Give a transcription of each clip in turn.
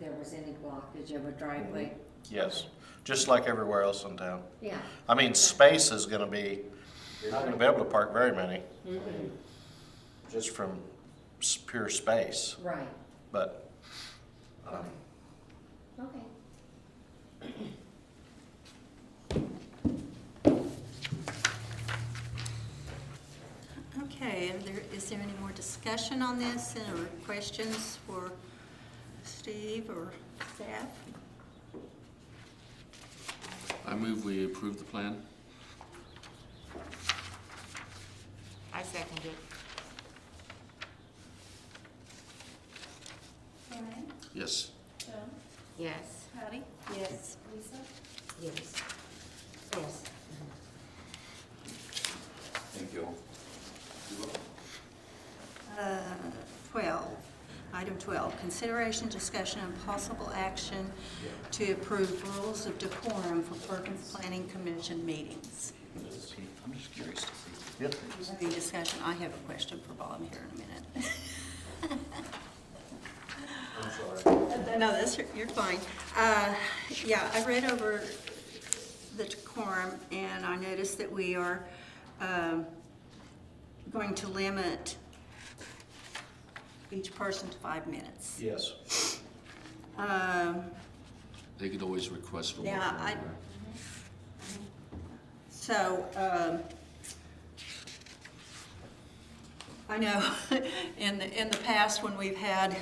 there was any blockage of a driveway? Yes, just like everywhere else in town. Yeah. I mean, space is gonna be, you're not gonna be able to park very many, Mhm. just from s- pure space, Right, but, um, okay. Okay. Okay, are there, is there any more discussion on this or questions for Steve or staff? I move we approve the plan. I second it. Brian, Yes. Joe, Yes. Patty, Yes. Lisa, Yes. Yes. Thank you all. Uh, 12, item 12, consideration, discussion, and possible action to approve rules of decorum for Perkins Planning Commission meetings. I'm just curious to see. yeah. Any discussion? I have a question for Bob here in a minute. No, that's, you're fine. Uh, Yeah, I read over the decorum, and I noticed that we are um, going to limit each person to five minutes. Yes. Um, They could always request for. Yeah, more. I- So, um, I know, in, the- in the past, when we've had,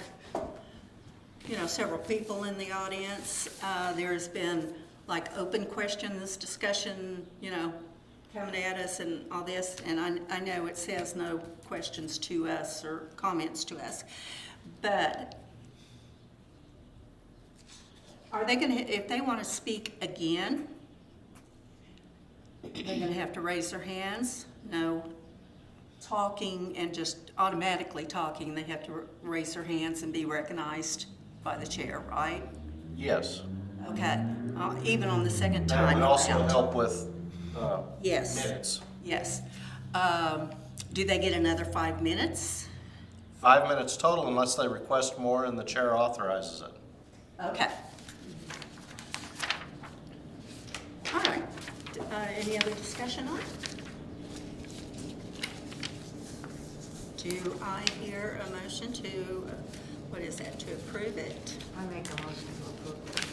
you know, several people in the audience, uh, there's been like open questions, discussion, you know, coming at us and all this, and I, I know it says no questions to us or comments to us, but are they gonna, if they wanna speak again, they're gonna have to raise their hands, no talking and just automatically talking, they have to r- raise their hands and be recognized by the chair, right? Yes. Okay, uh, even on the second That time would also around. help with, uh, Yes, minutes. yes. Um, do they get another five minutes? Five minutes total unless they request more and the chair authorizes it. Okay. All right, D- uh, any other discussion on it? Do I hear a motion to, uh, what is that, to approve it? I make a motion to approve.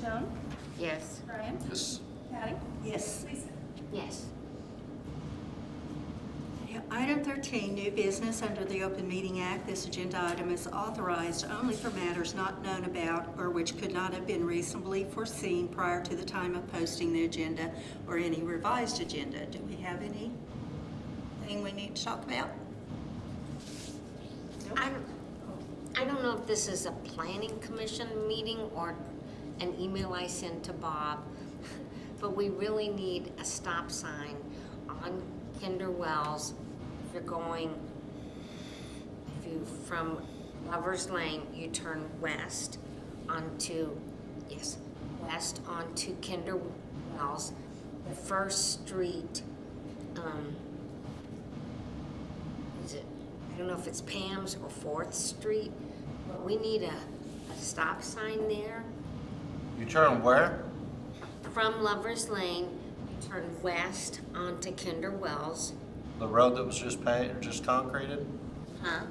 Joan, Yes. Brian, Yes. Patty, Yes. Lisa. Yes. Item 13, new business under the Open Meeting Act. This agenda item is authorized only for matters not known about or which could not have been reasonably foreseen prior to the time of posting the agenda or any revised agenda. Do we have any thing we need to talk about? I don't, I don't know if this is a planning commission meeting or an email I sent to Bob, but we really need a stop sign on Kinder Wells. If you're going, if you, from Lover's Lane, you turn west onto, yes, west onto Kinder Wells. The first street, um, is it, I don't know if it's Pam's or Fourth Street, but we need a, a stop sign there. You turn where? From Lover's Lane, you turn west onto Kinder Wells. The road that was just paved, or just concreted? Huh?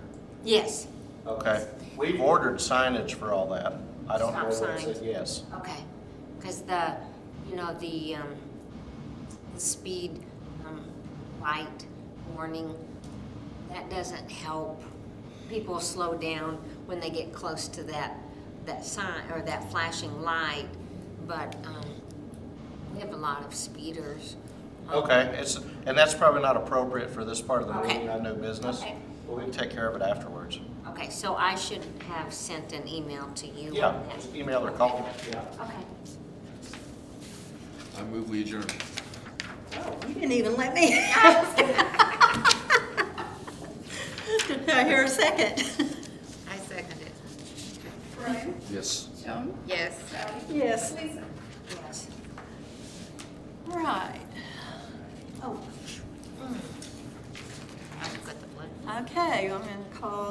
Yes, Okay. We've ordered signage for all that. I don't know Stop where it said signs. yes. okay. Because the, you know, the, um, the speed, um, light warning, that doesn't help. People slow down when they get close to that, that sign, or that flashing light, but, um, we have a lot of speeders. Um, Okay, it's, and that's probably not appropriate for this part of the Okay. meeting, on new business. Okay. But we can take care of it afterwards. Okay, so I should have sent an email to you. Yeah, on that. just email or call. Yeah. Okay. I move we adjourn. Oh, You didn't even let me ask. Did I hear a second? I second it. Brian, Yes. Joan, Yes. Patty. Yes. Lisa. Yes. Right. Oh, I've got the blood. okay, I'm going to call